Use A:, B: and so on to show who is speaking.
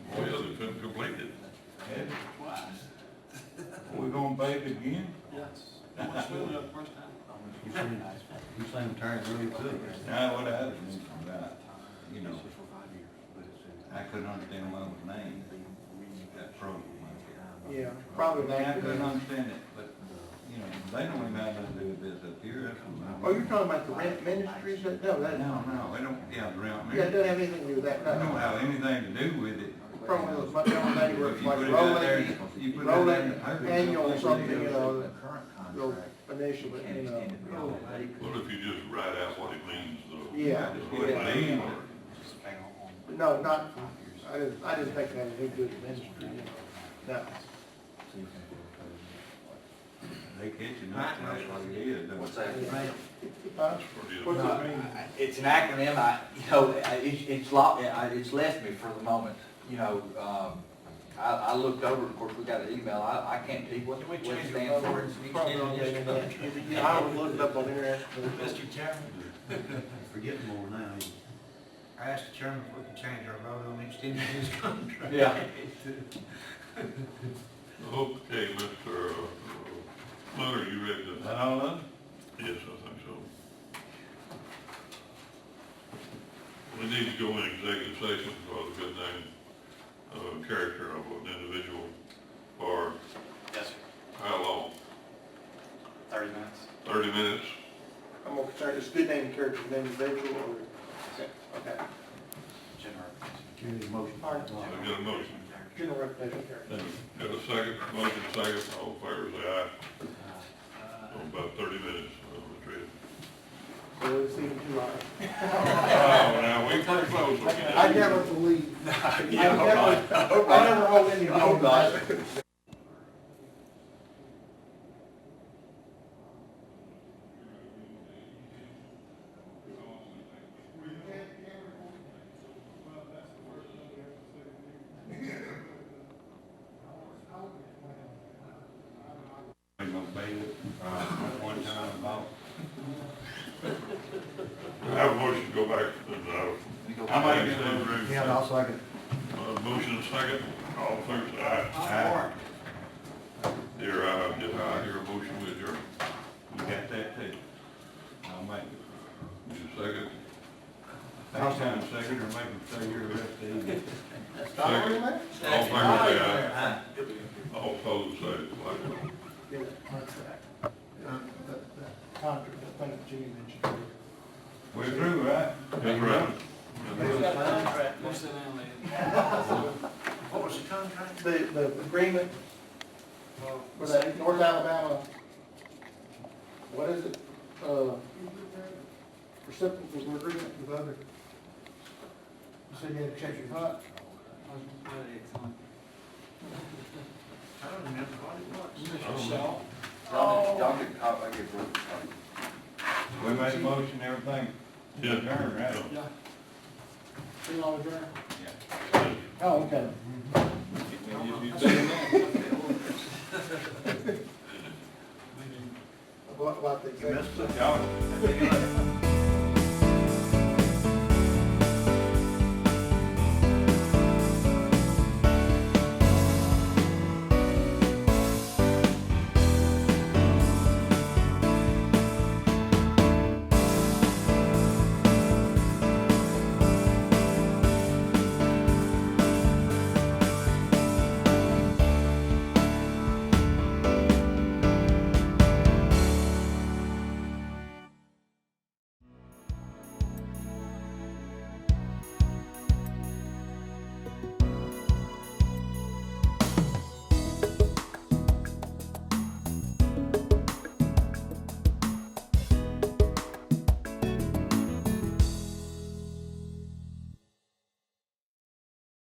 A: We're gonna bake again?
B: Yes. Once we do it first time.
C: You're saying, you're saying tired really good.
A: Now, what happened is that, you know, I
C: I
A: couldn't understand what was named, that program. was.
D: Yeah,
A: Probably,
D: probably
A: they- I
D: that.
A: couldn't understand it, but, you know, they don't even have nothing to do with this up here. that's what
D: Oh, you're talking about the rent ministries, that, no,
A: I-
D: that,
A: No, no, they don't, yeah, around me.
D: that doesn't have anything to do with
A: They
D: that,
A: don't
D: no.
A: have anything to do with it.
D: Probably those much on that, where it's
A: You
D: like
A: put it out there,
D: rolling,
A: you put it out there in the
D: rolling
A: paper,
D: annual
A: it's
D: something, you
A: like-
D: know,
C: current
D: those
C: contract,
D: initial, you know.
E: What if you just write out what it means though?
D: Yeah,
E: Just what it
A: yeah.
E: means,
D: No, not, I didn't, I didn't think that was a good ministry, you know. No,
A: They catching up, that's what it is. don't
F: What's
A: they?
F: that?
D: Huh?
E: or
D: what's
E: just-
D: it mean?
F: It's an acronym, I, you know, I- it's, it's lo I- it's left me for the moment, you know, um, I, I looked over, of course, we got an email, I, I can't tell you what, what it stands for. It's an
D: Probably on the
F: extended
D: internet.
F: initiative.
D: Yeah, I would look it up on the internet.
G: Mr. Chairman,
C: Forgetting more now. ain't it?
G: I asked the chairman if we can change our vote on extending his contract.
F: Yeah.
E: Okay, Mr. Flutter, you ready to?
A: Is that all of it?
E: Yes, I think so. We need to go in executive session for the good name, uh, character of an individual for
B: Yes, sir.
E: how long?
B: Thirty minutes.
E: Thirty minutes?
D: I'm more concerned, it's good name, character, name, individual, or, okay,
B: General.
C: Give me a motion.
D: Alright.
E: I got a motion.
D: general reputation, character.
E: Got a second, motion second, all in favor, say aye. So About thirty minutes, uh, retreat.
D: So it's even too high.
E: Oh, now, we pretty close, we can-
D: I never believe. I never, I never hold any.
F: Oh, God.
A: They gonna pay it, uh, one time about.
E: I have a motion to go back to the, uh,
A: I might get a
E: executive
A: little-
E: room.
C: Yeah, I'll second.
E: Uh, motion and second, all in favor, say aye.
A: I,
E: Dear, uh, did I hear a motion with your,
A: you got that too. I'll make it.
E: you second?
A: Next time, second, or make them say you're a refugee.
D: Stop doing that?
E: All in favor, say aye. All opposed, say likewise.
D: Yeah, that's that. Uh, that- that Contract, I think Jimmy mentioned. earlier.
A: We're through, right?
E: That's right.
B: Most of them,
G: What was the contract?
D: The, the agreement for that North Alabama, what is it? Uh, Reciprocal agreement with other. You said you had to check your hot.
G: I don't remember what it was.
F: Y'all, y'all can, I, I get it.
A: We made a motion, everything.
E: Yeah.
A: Turn, right?
D: Yeah. See you all adjourned.
A: Yeah.
D: Oh, okay. What, what the.
C: You missed it.
A: Y'all,